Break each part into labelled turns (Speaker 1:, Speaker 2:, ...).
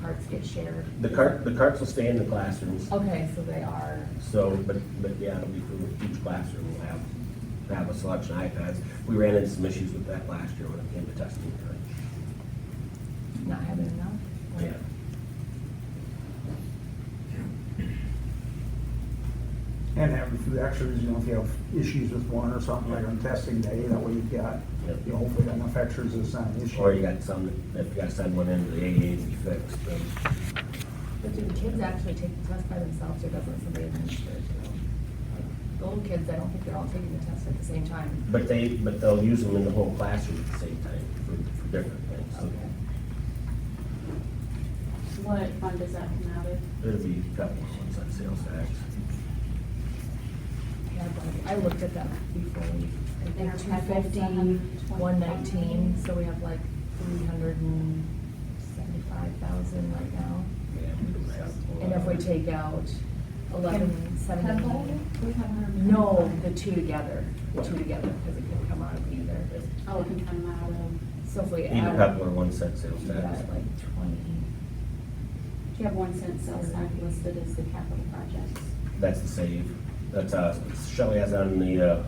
Speaker 1: carts get shared?
Speaker 2: The cart, the carts will stay in the classrooms,
Speaker 1: Okay, so they are,
Speaker 2: so, but, but yeah, it'll be for each classroom, we'll have, have a selection of iPads. We ran into some issues with that last year when it came to testing time.
Speaker 1: not having enough? Like,
Speaker 2: Yeah.
Speaker 3: And have a few extras, you know, if you have issues with one or something like on testing day, that way you've got,
Speaker 2: Yep.
Speaker 3: you know, hopefully got enough extras, it's not an issue.
Speaker 2: Or you got some, that- if you gotta send one into the AAs to be fixed, then
Speaker 1: But do the kids actually take the test by themselves or doesn't somebody administer it to them? Like, The little kids, I don't think they're all taking the test at the same time.
Speaker 2: But they, but they'll use them in the whole classroom at the same time for, for different things.
Speaker 1: Okay.
Speaker 4: What fund does that come out of?
Speaker 2: There'll be a couple of ones on sales tax.
Speaker 1: Yeah, but I looked at that before we, I
Speaker 4: And
Speaker 1: think
Speaker 4: our
Speaker 1: two
Speaker 4: packet's
Speaker 1: fifty, one nineteen,
Speaker 4: 125.
Speaker 1: so we have like three hundred and seventy-five thousand right now.
Speaker 2: Yeah, we don't have a whole
Speaker 1: And if we
Speaker 2: lot.
Speaker 1: take out eleven seventy.
Speaker 4: We have Oh, hundred.
Speaker 1: No, the two together, the two together, because it can come out of either.
Speaker 4: Oh, it can come out of,
Speaker 1: So if we
Speaker 2: Need a
Speaker 1: add.
Speaker 2: couple of ones set sales
Speaker 1: we
Speaker 2: tax.
Speaker 1: got, Like twenty,
Speaker 4: do you have one cent sales tax listed as the capital projects?
Speaker 2: That's the save. That's, uh, Shelley has on the, uh,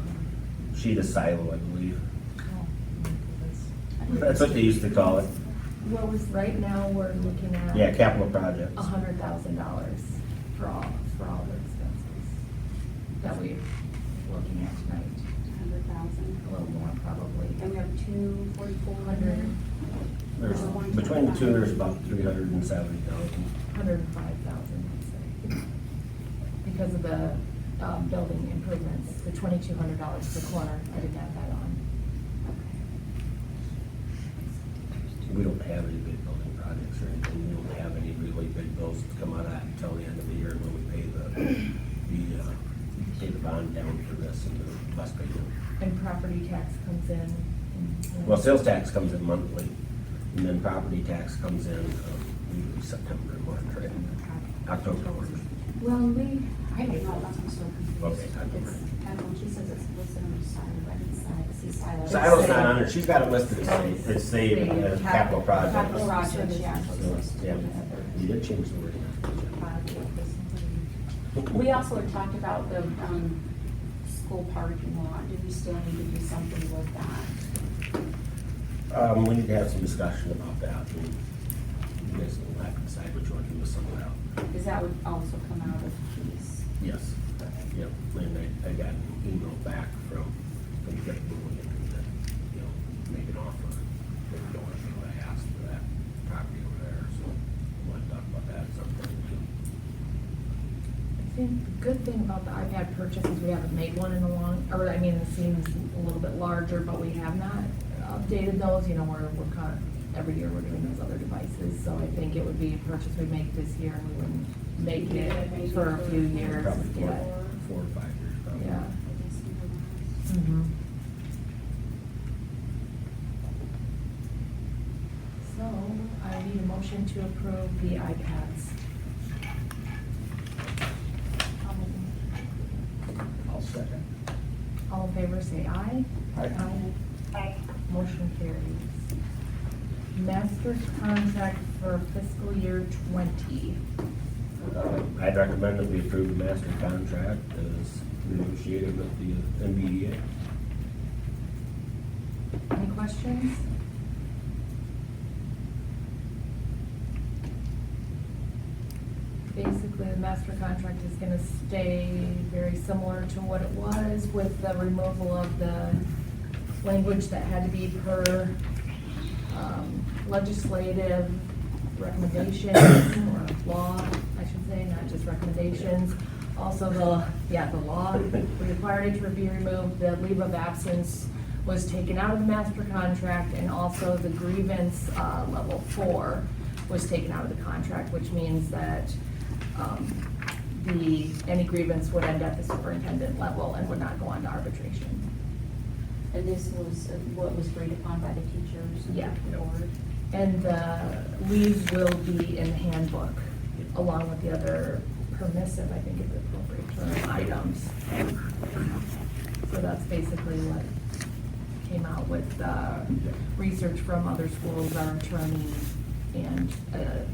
Speaker 2: sheet of silo, I believe. That's what they used to call it.
Speaker 1: what was, right now, we're looking at.
Speaker 2: Yeah, capital projects.
Speaker 1: a hundred thousand dollars for all, for all the expenses that we're looking at tonight,
Speaker 4: Hundred thousand.
Speaker 1: a little more probably.
Speaker 4: And we have two forty-four hundred.
Speaker 2: There's, between the two, there's about three hundred and seventy thousand.
Speaker 1: Hundred and five thousand, I'd say. Because of the, um, building improvements, the twenty-two hundred dollars per corner, I didn't add that on.
Speaker 2: We don't have any big building projects or anything. We don't have any really big bills that come out of that until the end of the year when we pay the, the, uh, pay the bond down for this and the bus payment.
Speaker 1: And property tax comes in. and-
Speaker 2: Well, sales tax comes in monthly, and then property tax comes in, um, usually September, and March, right? October, March.
Speaker 4: Well, we, I don't know, that's what's so confused.
Speaker 2: Okay, I don't
Speaker 4: It's, I don't, know, she says it's listed under silo, but it's not, it's silo.
Speaker 2: Silo's not on it. She's got it listed as saved, it's saved as capital projects.
Speaker 4: Capital projects, yeah. so
Speaker 2: So,
Speaker 4: it's
Speaker 2: yeah,
Speaker 4: listed under
Speaker 2: we did change the word.
Speaker 4: We also had talked about the, um, school parking lot, do we still need to do something with that?
Speaker 2: Um, we need to have some discussion about that, and you guys will have to decide which one you will send out.
Speaker 4: Cause that would also come out of fees.
Speaker 2: Yes, yep, and I, I got an email back from, from Greg Bowen, that, you know, make an offer. They don't want to what I asked for that property over there, so I want to talk about that at some point.
Speaker 1: I think the good thing about the iPad purchase is we haven't made one in a long, or I mean, it seems a little bit larger, but we have not updated those, you know, we're, we're kind of, every year we're doing those other devices, so I think it would be a purchase we make this year, and we wouldn't make it for a few years,
Speaker 2: Probably
Speaker 1: yeah.
Speaker 2: four, four or five years, probably.
Speaker 1: Yeah.
Speaker 4: I guess we don't know.
Speaker 1: Mhm. So, I need a motion to approve the iPads. I'll make a motion.
Speaker 3: I'll second.
Speaker 1: All in favor, say aye.
Speaker 3: Aye.
Speaker 1: Aye. Motion carries. Master contract for fiscal year twenty.
Speaker 2: Um, I'd recommend that we approve the master contract as negotiated with the E MBDA.
Speaker 1: Any questions? Basically, the master contract is gonna stay very similar to what it was with the removal of the language that had to be per um, legislative recommendations or law, I should say, not just recommendations. Also the, yeah, the law required it to be removed, the leave of absence was taken out of the master contract and also the grievance, uh, level four was taken out of the contract, which means that, um, the, any grievance would end at the superintendent level and would not go on to arbitration.
Speaker 4: And this was uh, what was agreed upon by the teachers and
Speaker 1: Yeah.
Speaker 4: the board.
Speaker 1: And the leave will be in the handbook, along with the other permissive, I think is the appropriate term, items. So that's basically what came out with, uh, research from other schools, our attorney, and, uh,